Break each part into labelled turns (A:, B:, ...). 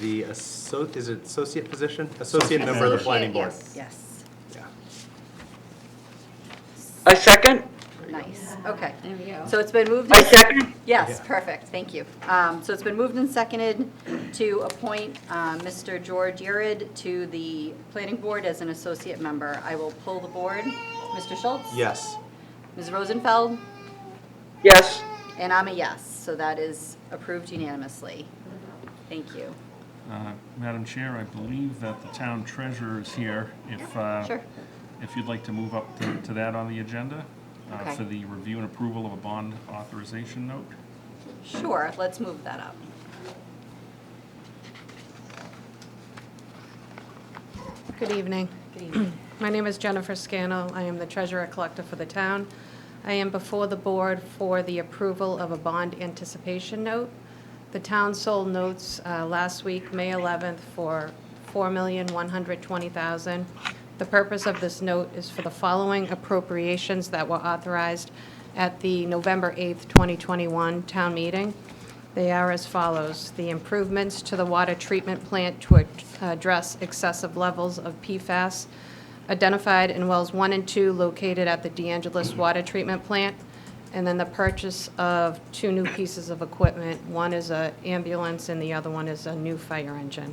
A: the, asso- is it associate position? Associate member of the
B: Associate,
A: planning board.
B: yes.
C: Yes,
A: Yeah.
D: I second,
C: nice, okay.
B: There we go.
C: So it's been moved.
D: I second,
C: Yes,
A: Yeah.
C: perfect, thank you. Um, So it's been moved and seconded to appoint uh, Mr. George Yurid to the planning board as an associate member. I will pull the board. Mr. Schultz?
A: Yes.
C: Ms. Rosenfeld?
D: yes.
C: And I'm a yes, so that is approved unanimously. Thank you.
E: Uh, Madam Chair, I believe that the town treasurer is here. If, uh,
C: Sure.
E: if you'd like to move up to to that on the agenda uh,
C: Okay.
E: for the review and approval of a bond authorization note.
C: Sure, let's move that up.
F: Good evening.
C: Good evening.
F: My name is Jennifer Scannell. I am the treasurer collector for the town. I am before the board for the approval of a bond anticipation note. The town sold notes uh, last week, May 11th, for $4,120,000. The purpose of this note is for the following appropriations that were authorized at the November 8th, 2021 town meeting. They are as follows. The improvements to the water treatment plant to ad- address excessive levels of PFAS identified in wells 1 and 2 located at the DeAngelis Water Treatment Plant, and then the purchase of two new pieces of equipment. One is a ambulance and the other one is a new fire engine.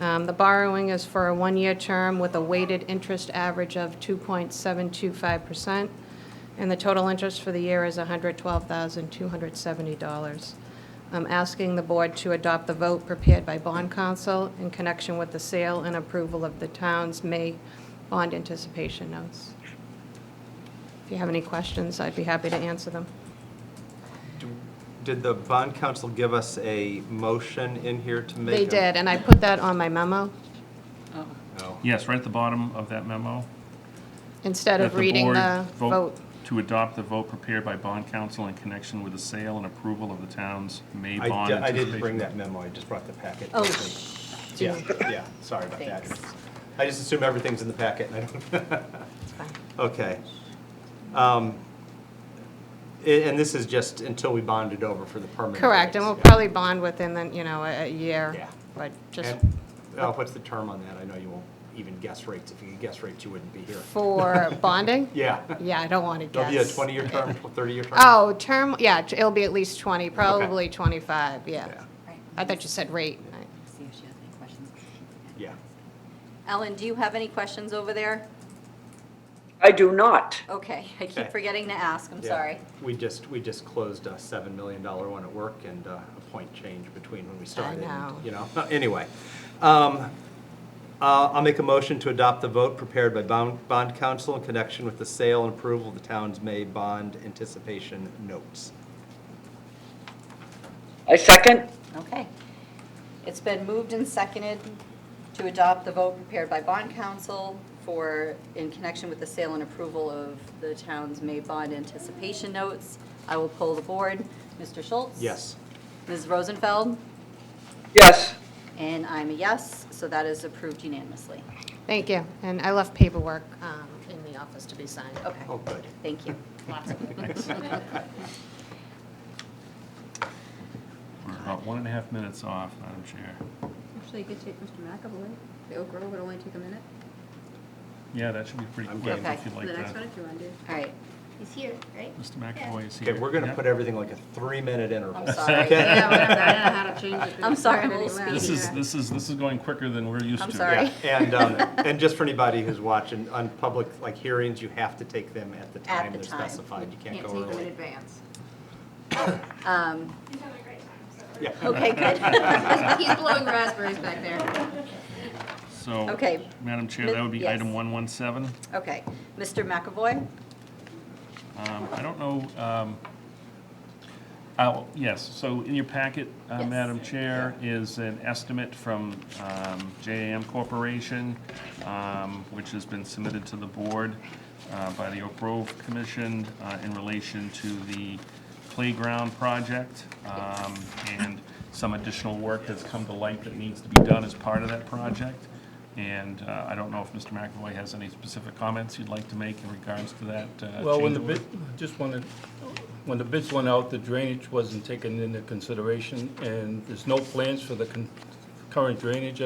F: Um, The borrowing is for a one-year term with a weighted interest average of 2.725%, and the total interest for the year is $112,270. I'm asking the board to adopt the vote prepared by bond counsel in connection with the sale and approval of the town's May bond anticipation notes. If you have any questions, I'd be happy to answer them.
A: Do- Did the bond council give us a motion in here to make?
F: They
A: a-
F: did, and I put that on my memo
A: Oh.
E: Yes, right at the bottom of that memo.
F: instead
E: that
F: of reading the
E: board
F: vote.
E: To adopt the vote prepared by bond council in connection with the sale and approval of the town's May
A: I
E: bond
A: di- I
E: anticipation.
A: didn't bring that memo, I just brought the packet.
C: Oh,
A: with me. Yeah, yeah, sorry about that.
C: Thanks.
A: I just assume everything's in the packet and I don't.
F: It's fine.
A: Okay. Um, a- And this is just until we bond it over for the permanent.
F: Correct, and
A: rates,
F: we'll
A: yeah.
F: probably bond within, the you know, a a year,
A: Yeah.
F: but just
A: And, oh, what's the term on that? I know you won't even guess rates. If you could guess rates, you wouldn't be here.
F: for bonding?
A: Yeah.
F: Yeah, I don't want to
A: It'll
F: guess.
A: be a 20-year term, 30-year term?
F: Oh, term, yeah, t- it'll be at least 20, probably 25, yeah.
A: Yeah,
C: Right.
F: I thought you said rate.
C: See if she has any questions.
A: Yeah.
C: Ellen, do you have any questions over there?
D: I do not.
C: Okay, I
A: Okay.
C: keep forgetting to ask, I'm
A: Yeah.
C: sorry.
A: We just, we just closed a $7 million one at work and uh, a point change between when we started. and,
F: know.
A: You know, anyway. Um, uh, I'll make a motion to adopt the vote prepared by bond, bond council in connection with the sale and approval of the town's May bond anticipation notes.
D: I second,
C: Okay. It's been moved and seconded to adopt the vote prepared by bond council for, in connection with the sale and approval of the town's May bond anticipation notes. I will poll the board. Mr. Schultz?
A: Yes.
C: Ms. Rosenfeld?
D: yes.
C: And I'm a yes, so that is approved unanimously.
F: Thank you, and I left paperwork um, in the office to be signed.
C: Okay,
A: Oh, good.
C: thank you. Lots of
E: We're about one and a half minutes off, Madam Chair.
B: Actually, you could take Mr. McAvoy. The Oak Grove would only take a minute.
E: Yeah, that should be pretty
A: I'm
E: quick
C: game.
E: if you'd
B: The
E: like
B: next one,
E: that.
B: if you want to.
C: All right,
B: He's here, right?
E: Mr. McAvoy is here.
A: Okay, we're going to
E: Yeah.
A: put everything like a three-minute interval.
C: I'm sorry.
A: Okay?
B: Yeah, whatever. I don't know how to change it. but
C: I'm
B: it's
C: sorry, I'm
B: already
C: a little
B: left.
E: This is,
B: Yeah.
E: this is, this is going quicker than we're used to.
C: I'm sorry.
A: Yeah, And, um, and just for anybody who's watching, on public, like, hearings, you have to take them at the
C: At
A: time
C: the
A: they're
C: time.
A: specified. You can't
B: Can't
A: go
B: take them in
A: early.
B: advance.
C: um,
A: Yeah.
C: okay, good.
B: He's blowing raspberries back there.
E: So.
C: Okay.
E: Madam Chair, that would be item
C: Yes.
E: 117.
C: Okay, Mr. McAvoy?
E: Um, I don't know, um, oh, yes, so in your packet, uh,
C: Yes.
E: Madam Chair, is an estimate from um, JAM Corporation, um, which has been submitted to the board uh, by the Oak Grove Commission uh, in relation to the playground project um, and some additional work that's come to light that needs to be done as part of that project. And uh, I don't know if Mr. McAvoy has any specific comments you'd like to make in regards to that uh, change
G: Well, when the
E: order.
G: bid, just wanted, when the bids went out, the drainage wasn't taken into consideration, and there's no plans for the con- current drainage